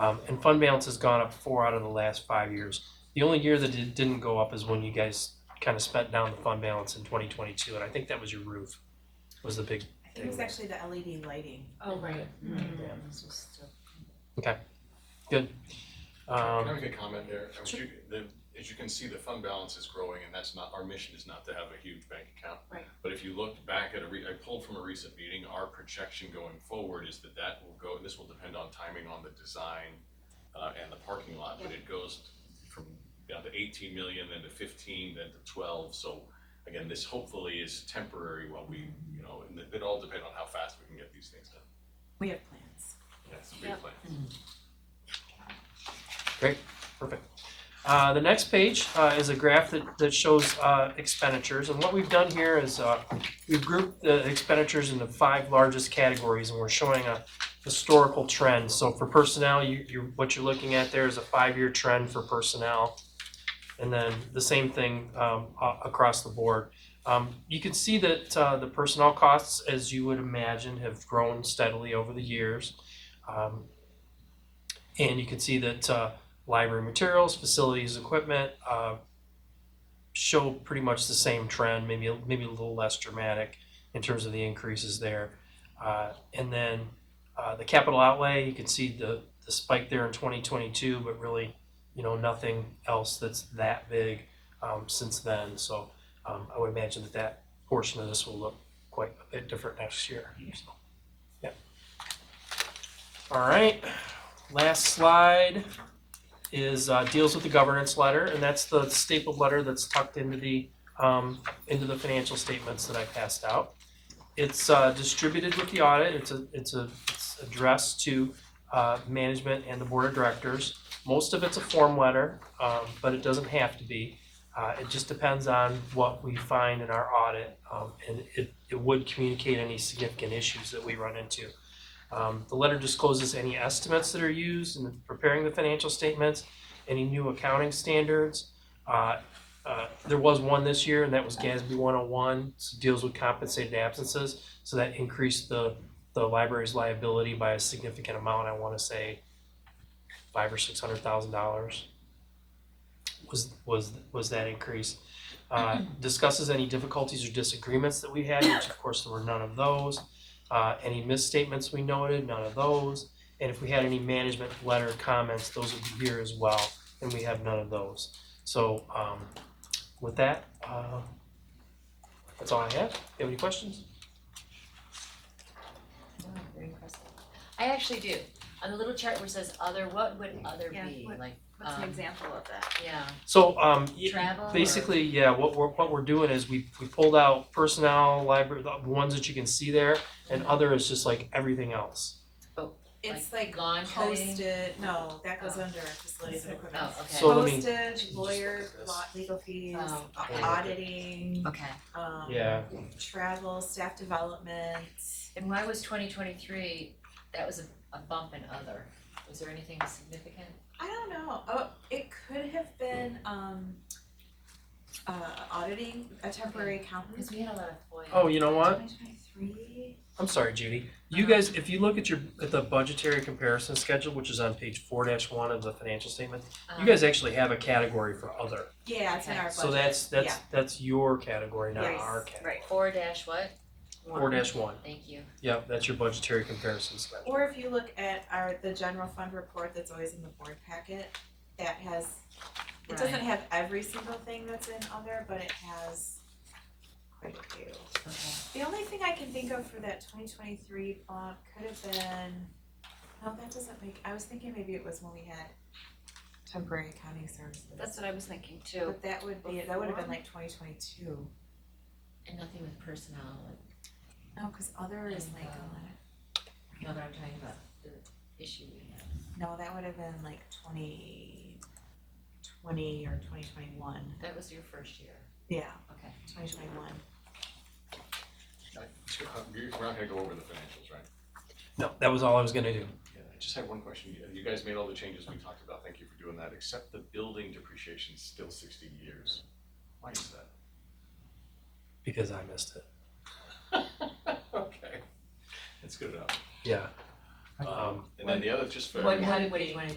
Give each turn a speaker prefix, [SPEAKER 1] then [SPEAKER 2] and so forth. [SPEAKER 1] Um, and fund balance has gone up four out of the last five years. The only year that it didn't go up is when you guys kind of spent down the fund balance in twenty twenty-two, and I think that was your roof, was the big.
[SPEAKER 2] I think it was actually the LED lighting.
[SPEAKER 3] Oh, right.
[SPEAKER 1] Yeah.
[SPEAKER 2] This was still-
[SPEAKER 4] Can I
[SPEAKER 1] Um,
[SPEAKER 4] make a comment there? As you, the, as you can see, the fund balance is growing and that's not, our mission is not to have a huge bank account.
[SPEAKER 3] Right.
[SPEAKER 4] But if you look back at a re, I pulled from a recent meeting, our projection going forward is that that will go, this will depend on timing on the design uh, and the parking lot, but it goes from down to eighteen million, then to fifteen, then to twelve, so again, this hopefully is temporary while we, you know, and it- it all depends on how fast we can get these things done.
[SPEAKER 2] We have plans.
[SPEAKER 4] Yes.
[SPEAKER 3] Yeah.
[SPEAKER 1] uh, the next page, uh, is a graph that, that shows, uh, expenditures, and what we've done here is, uh, we've grouped the expenditures into five largest categories, and we're showing a historical trend. So for personnel, you, you, what you're looking at there is a five-year trend for personnel. And then the same thing, um, a- across the board. Um, you can see that, uh, the personnel costs, as you would imagine, have grown steadily over the years. Um, and you can see that, uh, library materials, facilities, equipment, uh, show pretty much the same trend, maybe, a- maybe a little less dramatic in terms of the increases there. Uh, and then, uh, the capital outlay, you can see the, the spike there in twenty twenty-two, but really, you know, nothing else that's that big, um, since then, so, um, I would imagine that that portion of this will look quite a bit different next year, so, yeah. All right, last slide is, uh, deals with the governance letter, and that's the stapled letter that's tucked into the, um, into the financial statements that I passed out. It's uh, distributed with the audit, it's a, it's a, it's addressed to uh, management and the board of directors. Most of it's a form letter, um, but it doesn't have to be. Uh, It just depends on what we find in our audit, um, and it, it would communicate any significant issues that we run into. Um, The letter discloses any estimates that are used in preparing the financial statements, any new accounting standards. Uh, uh, There was one this year, and that was GASB 101, so deals with compensated absences. So that increased the, the library's liability by a significant amount, I wanna say five or six hundred thousand dollars was, was, was that increase. Uh, discusses any difficulties or disagreements that we had, which of course there were none of those. Uh, any misstatements we noted, none of those. And if we had any management letter comments, those would be here as well, and we have none of those. So, um, with that, uh, that's all I have. You have any questions?
[SPEAKER 3] Wow, Oh, very impressive. I actually do. On the little chart where it says other, what would other
[SPEAKER 2] Yeah,
[SPEAKER 3] be?
[SPEAKER 2] what-
[SPEAKER 3] Like,
[SPEAKER 2] What's an
[SPEAKER 3] Um,
[SPEAKER 2] example of that?
[SPEAKER 3] yeah,
[SPEAKER 1] So, um, y-
[SPEAKER 3] travel or?
[SPEAKER 1] basically, yeah, what we're, what we're doing is we, we pulled out personnel, library, the ones that you can see there, and other is just like everything else.
[SPEAKER 2] It's like
[SPEAKER 3] Lawn cutting?
[SPEAKER 2] posted, no, that goes
[SPEAKER 3] Oh.
[SPEAKER 2] under facilities and equipment.
[SPEAKER 3] Oh, okay.
[SPEAKER 1] So let me-
[SPEAKER 2] Postage, lawyer, lot, legal fees,
[SPEAKER 3] Oh, okay.
[SPEAKER 2] auditing,
[SPEAKER 3] Okay,
[SPEAKER 2] um,
[SPEAKER 1] Yeah.
[SPEAKER 2] travel, staff development.
[SPEAKER 3] and why was twenty twenty-three, that was a, a bump in other? Was there anything significant?
[SPEAKER 2] I don't know, oh, it could have been, um, uh, auditing, a temporary accountant.
[SPEAKER 3] Cause we had a lot of FOIA.
[SPEAKER 1] Oh, you know what?
[SPEAKER 2] Twenty twenty-three.
[SPEAKER 1] I'm sorry, Judy. You guys, if you look at your, at the budgetary comparison schedule, which is on page four dash one of the financial statement, you
[SPEAKER 3] Um,
[SPEAKER 1] guys actually have a category for other.
[SPEAKER 2] Yeah, it's in
[SPEAKER 3] Okay.
[SPEAKER 2] Uh-huh. our budget.
[SPEAKER 1] So that's, that's,
[SPEAKER 2] yeah.
[SPEAKER 1] that's your category, not
[SPEAKER 2] Yes,
[SPEAKER 1] our category.
[SPEAKER 2] Right,
[SPEAKER 3] Four dash what?
[SPEAKER 1] Four dash one.
[SPEAKER 3] Thank you.
[SPEAKER 1] Yep, that's your budgetary comparison schedule.
[SPEAKER 2] Or if you look at our, the general fund report that's always in the board packet, that has, it doesn't
[SPEAKER 3] Right.
[SPEAKER 2] have every single thing that's in other, but it has quite a few.
[SPEAKER 3] Okay.
[SPEAKER 2] The only thing I can think of for that twenty twenty-three bump could have been, no, that doesn't make, I was thinking maybe it was when we had temporary accounting services.
[SPEAKER 5] That's what I was thinking too.
[SPEAKER 2] But that would be, that would have been like twenty twenty-two.
[SPEAKER 3] And nothing with personnel,
[SPEAKER 2] No, Oh, cause other is like,
[SPEAKER 3] Uh,
[SPEAKER 2] a
[SPEAKER 3] like, no, but I'm talking about the issue we had.
[SPEAKER 2] lot. no, that would have been like twenty twenty or twenty twenty-one,
[SPEAKER 3] That was your first year,
[SPEAKER 2] yeah.
[SPEAKER 3] okay.
[SPEAKER 2] Twenty twenty-one.
[SPEAKER 4] I- We're not gonna go over the financials, right?
[SPEAKER 1] No, that was all I was gonna do.
[SPEAKER 4] Yeah, I just had one question. You- You guys made all the changes we talked about. Thank you for doing that, except the building depreciation's still sixty years. Why is that?
[SPEAKER 1] Because I missed it.
[SPEAKER 4] Okay, that's good enough.
[SPEAKER 1] Yeah.
[SPEAKER 6] Um, and then the other, just for
[SPEAKER 4] What,
[SPEAKER 6] everyone-
[SPEAKER 4] how did, what do you wanna